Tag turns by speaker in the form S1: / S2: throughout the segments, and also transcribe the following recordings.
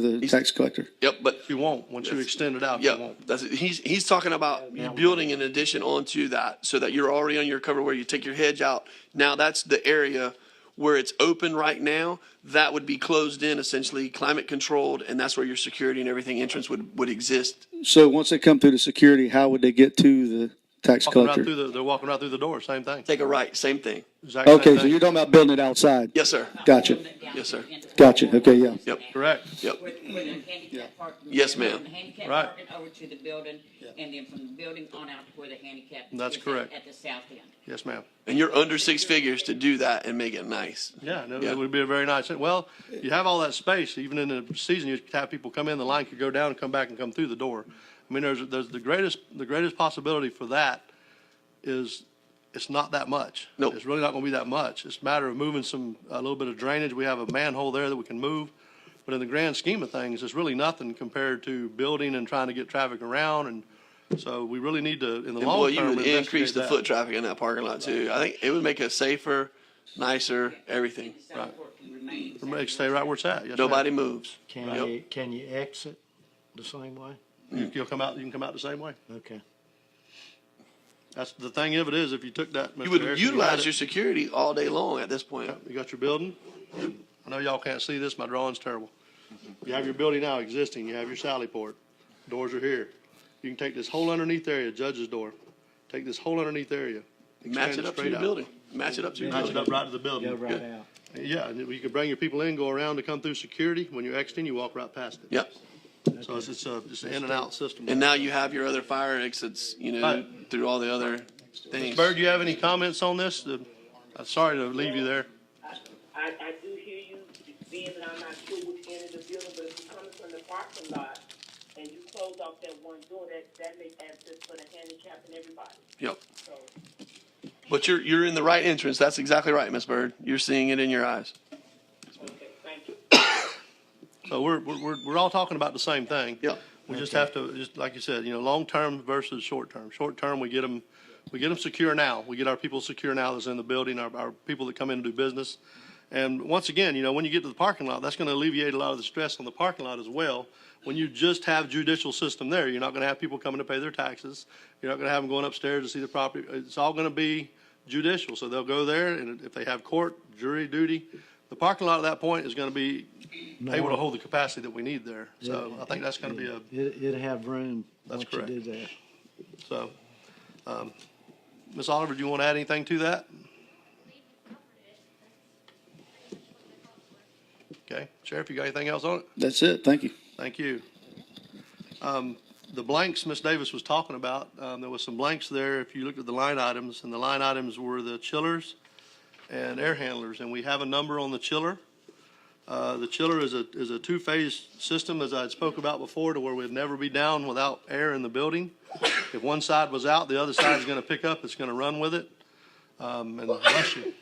S1: the tax collector.
S2: Yep, but,
S3: You won't, once you extend it out, you
S2: yeah,
S3: won't.
S2: that's, he's, he's talking about building an addition onto that so that you're already on your cover where you take your hedge out. Now, that's the area where it's open right now. That would be closed in essentially, climate controlled, and that's where your security and everything entrance would, would exist.
S1: So once they come through the security, how would they get to the tax
S3: Walking right
S1: collector?
S3: through the, they're walking right through the door, same thing.
S2: Take a right, same thing.
S3: Exact same
S1: Okay, so
S3: thing.
S1: you're talking about building it outside?
S2: Yes, sir.
S1: Gotcha,
S2: Yes, sir.
S1: gotcha, okay, yeah.
S2: Yep.
S3: Correct.
S2: Yep.
S4: With, with the handicap parking.
S2: Yes,
S4: from
S2: ma'am.
S4: the handicap
S3: Right.
S4: parking over to the building, and then from the building on out to where the handicap.
S3: That's
S4: is at-
S3: correct.
S4: At the south end.
S3: Yes, ma'am.
S2: And you're under six figures to do that and make it nice.
S3: Yeah, no,
S2: Yeah.
S3: it would be a very nice, well, you have all that space, even in the season, you could have people come in, the line could go down, come back and come through the door. I mean, there's, there's the greatest, the greatest possibility for that is, it's not that much.
S2: Nope.
S3: It's really not gonna be that much. It's a matter of moving some, a little bit of drainage. We have a manhole there that we can move. But in the grand scheme of things, it's really nothing compared to building and trying to get traffic around and so we really need to, in the
S2: And
S3: long
S2: boy,
S3: term.
S2: you would
S3: investigate
S2: increase the
S3: that.
S2: foot traffic in that parking lot too. I think it would make it safer, nicer, everything.
S4: The south court can remain.
S3: Make- Stay right where it's at. Yes, ma'am.
S2: Nobody moves.
S5: Can
S2: Yep.
S5: you, can you exit the same way?
S3: You- You'll come out, you can come out the same way.
S5: Okay.
S3: That's the thing of it is, if you took that.
S2: You would utilize your security all day long at this point.
S3: You got your building. I know y'all can't see this, my drawing's terrible. You have your building now existing, you have your sally port, doors are here. You can take this whole underneath area, judge's door, take this whole underneath area.
S2: Match
S3: expand
S2: it up to
S3: straight
S2: your
S3: out.
S2: building. Match it up to your
S3: Match it
S2: building.
S3: up right to the
S5: Go
S3: building.
S5: right out.
S3: Yeah, and you can bring your people in, go around to come through security. When you're exiting, you walk right past it.
S2: Yep.
S3: So it's, it's a, it's an in and out system.
S2: And now you have your other fire exits, you know,
S3: Right.
S2: through all the other things.
S3: Bird, do you have any comments on this? The- I'm sorry to leave you there.
S6: I, I do hear you, being that I'm not sure which end of the building, but if you're coming from the parking lot and you close off that one door, that, that makes access for the handicap and everybody,
S2: Yep.
S6: so.
S2: But you're, you're in the right entrance. That's exactly right, Miss Bird. You're seeing it in your eyes.
S6: Okay, thank you.
S3: So we're, we're, we're- we're all talking about the same thing.
S2: Yeah.
S3: We just have to, just like you said, you know, long-term versus short-term. Short-term, we get them, we get them secure now. We get our people secure now that's in the building, our, our people that come in and do business. And once again, you know, when you get to the parking lot, that's gonna alleviate a lot of the stress on the parking lot as well. When you just have judicial system there, you're not gonna have people coming to pay their taxes. You're not gonna have them going upstairs to see the property. It's all gonna be judicial. So they'll go there and if they have court, jury duty, the parking lot at that point is gonna be able to hold the capacity that we need there. So I think that's gonna be a,
S5: It, it'd have room
S3: That's
S5: once you do
S3: correct.
S5: that.
S3: so. um, Ms. Oliver, do you want to add anything to that? Okay, Sheriff, you got anything else on it?
S1: That's it, thank you.
S3: Thank you. Um, The blanks Ms. Davis was talking about, um, there was some blanks there, if you looked at the line items, and the line items were the chillers and air handlers, and we have a number on the chiller. Uh, The chiller is a, is a two-phase system, as I had spoke about before, to where we'd never be down without air in the building. If one side was out, the other side is gonna pick up, it's gonna run with it. Um, And bless you.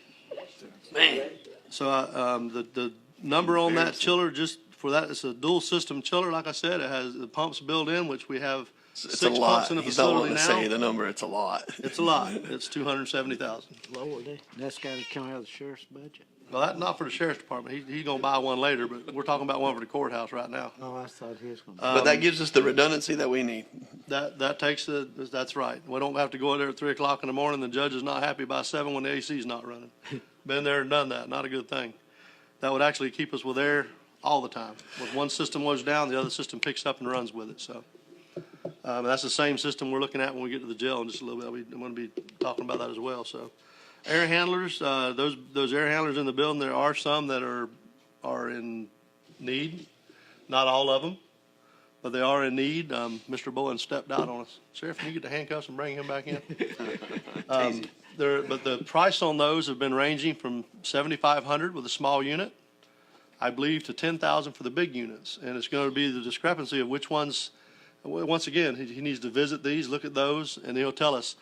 S2: Man.
S3: So uh, um, the, the number on that chiller, just for that, it's a dual system chiller, like I said, it has the pumps built in, which we have
S2: It's a
S3: six
S2: lot.
S3: pumps in the
S2: He's not
S3: facility
S2: wanting to say
S3: now.
S2: the number. It's a lot.
S3: It's a lot, it's two hundred and seventy thousand.
S5: Lord, that's gotta come out of the sheriff's budget.
S3: Well, that, not for the sheriff's department, he, he gonna buy one later, but we're talking about one for the courthouse right now. Uh,
S5: Oh, I thought he was gonna.
S2: But
S3: um,
S2: that gives us the redundancy that we need.
S3: That, that takes the, that's right, we don't have to go in there at three o'clock in the morning, the judge is not happy by seven when the AC is not running. Been there and done that, not a good thing. That would actually keep us with air all the time. If one system was down, the other system picks up and runs with it, so. Um, that's the same system we're looking at when we get to the jail in just a little bit. We- I'm gonna be talking about that as well, so. Air handlers, uh, those, those air handlers in the building, there are some that are, are in need. Not all of them, but they are in need. Um, Mr. Bowen stepped out on us. Sheriff, can you get the handcuffs and bring him back in? Um, there, but the price on those have been ranging from seventy-five hundred with a small unit, I believe, to ten thousand for the big units. And it's gonna be the discrepancy of which ones, w- once again, he, he needs to visit these, look at those, and he'll tell us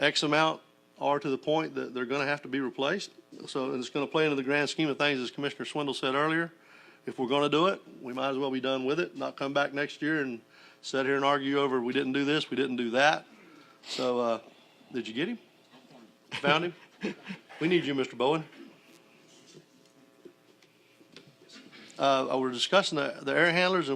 S3: X amount are to the point that they're gonna have to be replaced. So, and it's gonna play into the grand scheme of things, as Commissioner Swindle said earlier. If we're gonna do it, we might as well be done with it, not come back next year and sit here and argue over, we didn't do this, we didn't do that. So, uh, did you get him? Found him? We need you, Mr. Bowen. Uh, we're discussing the, the air handlers and